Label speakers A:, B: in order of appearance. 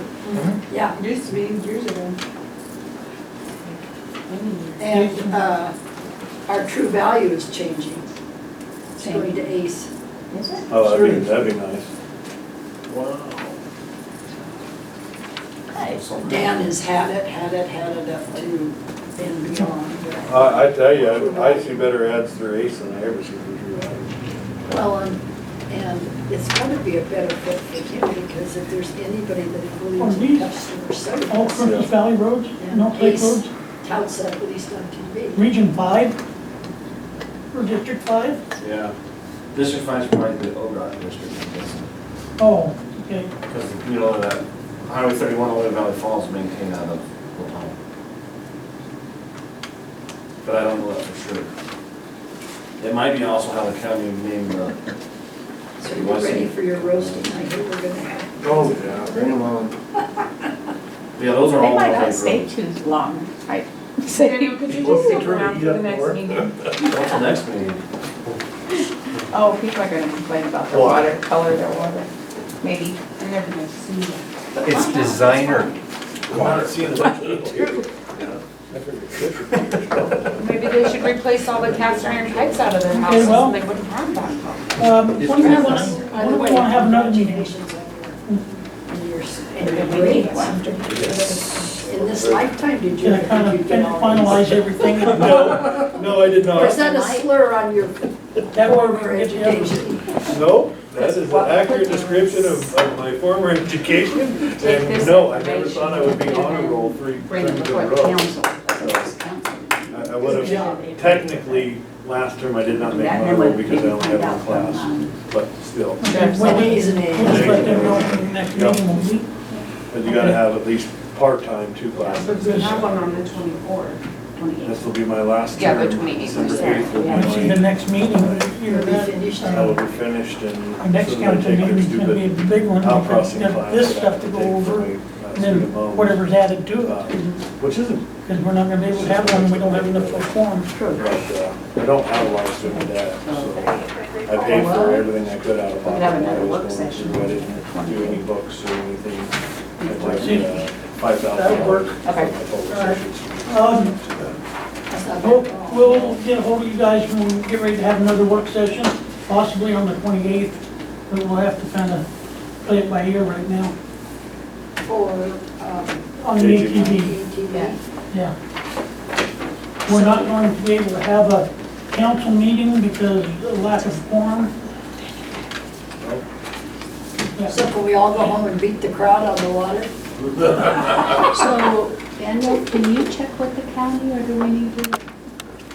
A: Yeah, Mm-hmm. it used to be years ago.
B: And uh, our true value is changing. It's going to ACE.
A: Is it?
C: Oh, that'd be, that'd be nice. Wow.
B: Dan has had it, had it, had it up to and beyond. but-
C: I, I tell you, I I see better ads through Ace than I ever see through True Value.
B: Well, and, and it's going to be a better fit for him because if there's anybody that believes
D: Are
B: in
D: these
B: customer
D: All
B: service,
D: Kirkland Valley roads,
B: Yeah.
D: no Lake
B: Ace.
D: roads,
B: touts that, but he's not TV.
D: Region Five, or District Five?
E: Yeah. District five's probably the ODOT district, I guess.
D: Oh, okay,
E: Because, you know, that Highway thirty-one all the way to Valley Falls is maintained out of Lapone. But I don't know that for sure. It might be also how the county named the.
B: So you ready for your roasting? I hear we're going to have.
C: Oh, yeah.
E: Bring them on. Yeah, those are
A: They
E: all
A: might
E: one
A: not
E: acre
A: stay
E: roads.
A: too long, right?
F: Daniel, could you just stick
C: True,
F: around
C: you
F: for
C: have to
F: the next
C: work.
F: meeting?
E: What's the next meeting?
A: Oh, people are gonna complain about the
C: Why?
A: water, color of their water, maybe, they're never gonna see it. But
G: It's
A: why not?
G: designer.
C: I'm not seeing that.
F: Maybe they should replace all the cast iron pipes out of their
D: Okay,
F: houses
D: well-
F: and they wouldn't have that.
D: um, when do we want,
B: That's- by the
D: when do we
B: way,
D: want to have another meeting?
B: congratulations on your- on your s- And
A: Maybe
B: your
A: we need
B: grades.
A: one.
B: In this lifetime, did you,
D: Can I kind
B: did
D: of
B: you get all these?
D: finalize everything?
C: No, no, I did
B: Or is
C: not.
B: that a slur on your
D: uh, That way we
B: former
D: can get together.
B: education?
C: No, that is an accurate description of, of my former education.
F: Take this
C: And no, I never thought I would be
F: information
C: on a roll three
A: Bring it
C: times in
A: before
C: a
A: the
C: row.
A: council. That
C: I- I would have, technically, last term I did not make honor roll
A: would be
C: because I only had
A: find out
C: one
A: from,
C: class,
A: um,
C: but still.
D: Okay,
B: Well,
D: We'll
B: he's an
D: we'll just
B: A.
D: let them know in the next meeting when we,
C: But you gotta have at least part-time two classes.
F: we have one on the twenty-fourth.
C: This will be my last
F: Yeah,
C: term.
F: the 28th,
C: December
F: sorry.
C: 8th will be
D: when we see
C: my-
D: the next meeting, we'll
B: You'll
D: hear
B: be
D: that.
B: finished
C: I will
B: now.
C: be finished and.
D: Our next
C: so they'll
D: council
C: take their
D: meeting is gonna be a
C: stupid
D: big one, because
C: outcrossing
D: we've got
C: class
D: this
C: that I
D: stuff
C: have
D: to go
C: take for
D: over,
C: my last
D: and then
C: student loan,
D: whatever's added to
C: uh,
D: it,
C: Which isn't,
D: because we're not gonna be able to have one, we don't have enough for form.
C: but uh, I don't have a lot of student debt, so I paid for everything I could out of
A: We'll
C: pocket.
A: have
C: when I
A: another
C: was
A: work
C: going to,
A: session
C: but I
A: on
C: didn't
A: the
C: do any
A: 28th.
C: books or anything. It's like uh,
D: See.
C: five thousand.
D: That'll work.
A: Okay.
D: Um,
B: That's not
D: We'll,
B: bad at all.
D: we'll get ahold of you guys when we get ready to have another work session, possibly on the twenty-eighth, but we'll have to kind of play it by ear right now,
B: For, um,
D: on the
C: JJ.
D: ATV,
B: ETV.
D: yeah. We're not going to be able to have a council meeting because of lack of form.
B: So can we all go home and beat the crowd on the water?
H: So, Daniel, can you check with the county, or do we need to